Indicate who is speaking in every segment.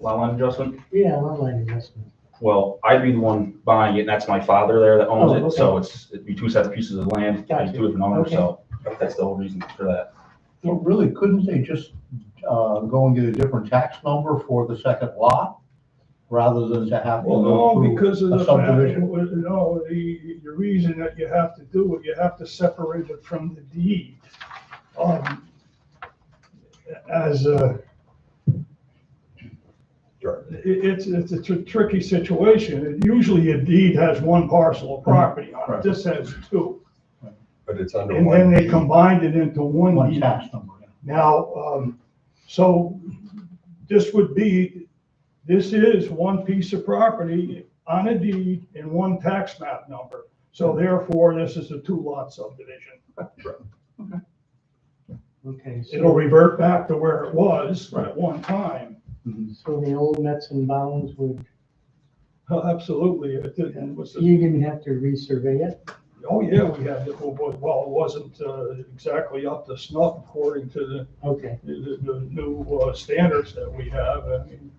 Speaker 1: lot line adjustment.
Speaker 2: Yeah, lot line adjustment.
Speaker 1: Well, I'd be the one buying it, and that's my father there that owns
Speaker 2: Oh,
Speaker 1: it, so it's, it'd be two separate pieces of land, it'd
Speaker 2: Gotcha.
Speaker 1: be two different owners, so that's the whole reason for that.
Speaker 3: Well, really, couldn't they just, uh, go and get a different tax number for the second lot? Rather than to have to
Speaker 4: Well,
Speaker 3: go
Speaker 4: no,
Speaker 3: through
Speaker 4: because of
Speaker 3: a
Speaker 4: the fact,
Speaker 3: subdivision?
Speaker 4: well, no, the, the reason that you have to do it, you have to separate it from the deed. Um, As a. It, it's, it's a tr- tricky situation. Usually a deed has one parcel of property on it.
Speaker 3: Right.
Speaker 4: This has two.
Speaker 5: But it's under
Speaker 4: And then
Speaker 5: one.
Speaker 4: they combined it into one
Speaker 3: One
Speaker 4: deed.
Speaker 3: tax number.
Speaker 4: Now, um, so this would be, this is one piece of property on a deed and one tax map number. So therefore, this is a two lot subdivision.
Speaker 2: Okay,
Speaker 4: It'll
Speaker 2: so,
Speaker 4: revert back to where it was at one time. Mm-hmm.
Speaker 2: so the old Mets and bounds would,
Speaker 4: Oh, Absolutely, it didn't, was,
Speaker 2: you didn't have to resurvey it?
Speaker 4: oh yeah, we had, to- well, it wasn't uh, exactly up to snuff according to the
Speaker 2: Okay,
Speaker 4: the, the new uh, standards that we have, I mean.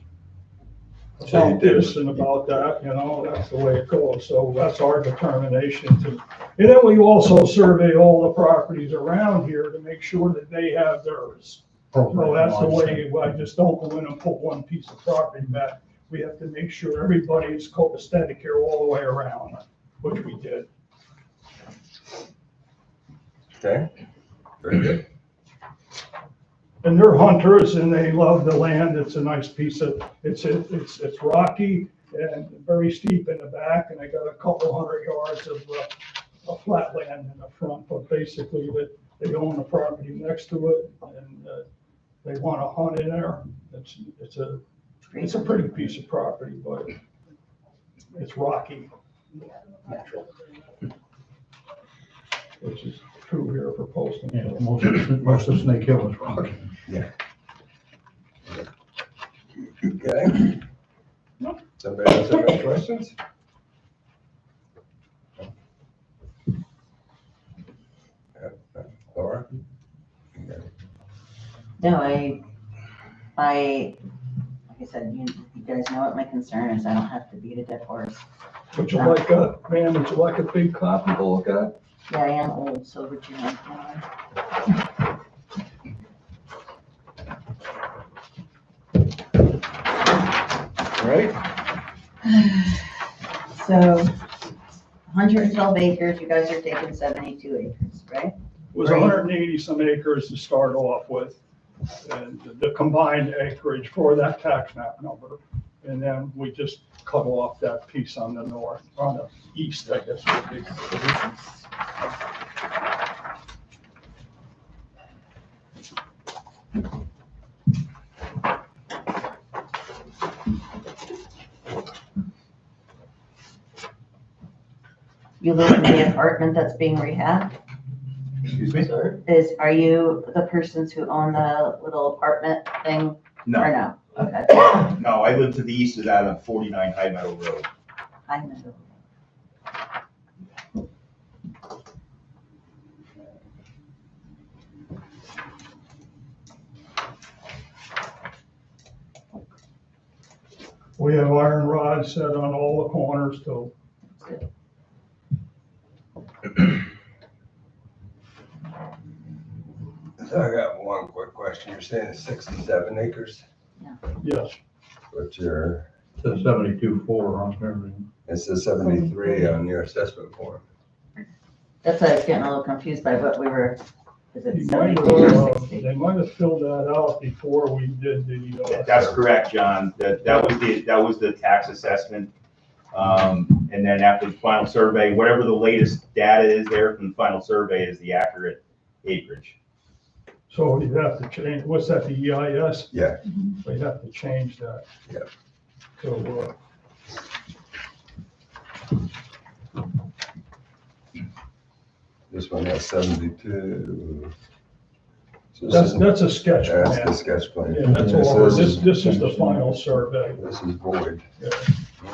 Speaker 5: So you
Speaker 4: About
Speaker 5: did.
Speaker 4: this and about that, you know, that's the way it goes, so that's our determination to. And then we also survey all the properties around here to make sure that they have theirs. So that's the way, I just don't go in and put one piece of property back. We have to make sure everybody is copacetic here all the way around, which we did.
Speaker 5: Okay. Very good.
Speaker 4: And they're hunters and they love the land. It's a nice piece of, it's, it's, it's rocky and very steep in the back and they got a couple hundred yards of, uh, of flat land in the front, but basically that they own the property next to it and, uh, they want to hunt in there. It's, it's a, it's a pretty piece of property, but it's rocky. Natural. Which is true here for Poston
Speaker 3: Yeah,
Speaker 4: Hill.
Speaker 3: most, of- most of Snake Hill is rocky.
Speaker 5: Okay. Somebody else have any questions? Laura?
Speaker 6: No, I, I, like I said, you, you guys know what my concern is. I don't have to beat a dead horse.
Speaker 4: Would you like a, ma'am, would you like a big copy to look at?
Speaker 6: Yeah, I am old, so would you like one?
Speaker 5: All right.
Speaker 6: So, hundred and twelve acres, you guys are taking seventy-two acres,
Speaker 4: It
Speaker 6: right?
Speaker 4: was hundred and eighty some acres to start off with, and the combined acreage for that tax map number. And then we just cut off that piece on the north, on the east, I guess would be.
Speaker 6: You live in the apartment that's being rehabbed?
Speaker 3: Excuse me?
Speaker 6: Is, are you the persons who own the little apartment thing? Or
Speaker 7: No,
Speaker 6: no? Okay.
Speaker 7: no, I live to the east of that on forty-nine High Meadow Road.
Speaker 6: I know.
Speaker 4: We have iron rods set on all the corners too.
Speaker 5: So I got one quick question. You're saying it's sixty-seven acres,
Speaker 4: yes.
Speaker 5: but you're,
Speaker 3: Says seventy-two four on everything.
Speaker 5: it says seventy-three on your assessment form.
Speaker 6: That's why I was getting a little confused by what we were, is
Speaker 4: You
Speaker 6: it
Speaker 4: might have,
Speaker 6: seventy-four or
Speaker 4: uh,
Speaker 6: sixty?
Speaker 4: They might have filled that out before we did the. uh,
Speaker 7: That's correct, John. That, that was the, that was the tax assessment. Um, and then after the final survey, whatever the latest data is there from the final survey is the accurate acreage.
Speaker 4: So you have to change, what's that, the E EIS?
Speaker 5: Yeah.
Speaker 4: So you have to change that.
Speaker 5: Yeah.
Speaker 4: So, uh,
Speaker 5: This one has seventy-two. So this
Speaker 4: that's,
Speaker 5: isn't-
Speaker 4: that's a sketch
Speaker 5: That's the
Speaker 4: plan.
Speaker 5: sketch plan.
Speaker 4: Yeah, that's
Speaker 5: This
Speaker 4: all,
Speaker 5: is-
Speaker 4: this, this is the final survey.
Speaker 5: This is void.
Speaker 4: Yeah.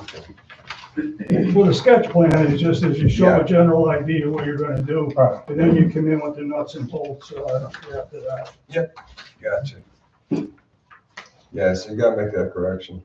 Speaker 5: Okay.
Speaker 4: Well, the sketch plan is just as you show
Speaker 5: Yeah.
Speaker 4: a general idea of what you're gonna do,
Speaker 3: Right.
Speaker 4: and then you come in with the nuts and bolts, uh, after that.
Speaker 5: Gotcha. Yes, you gotta make that correction.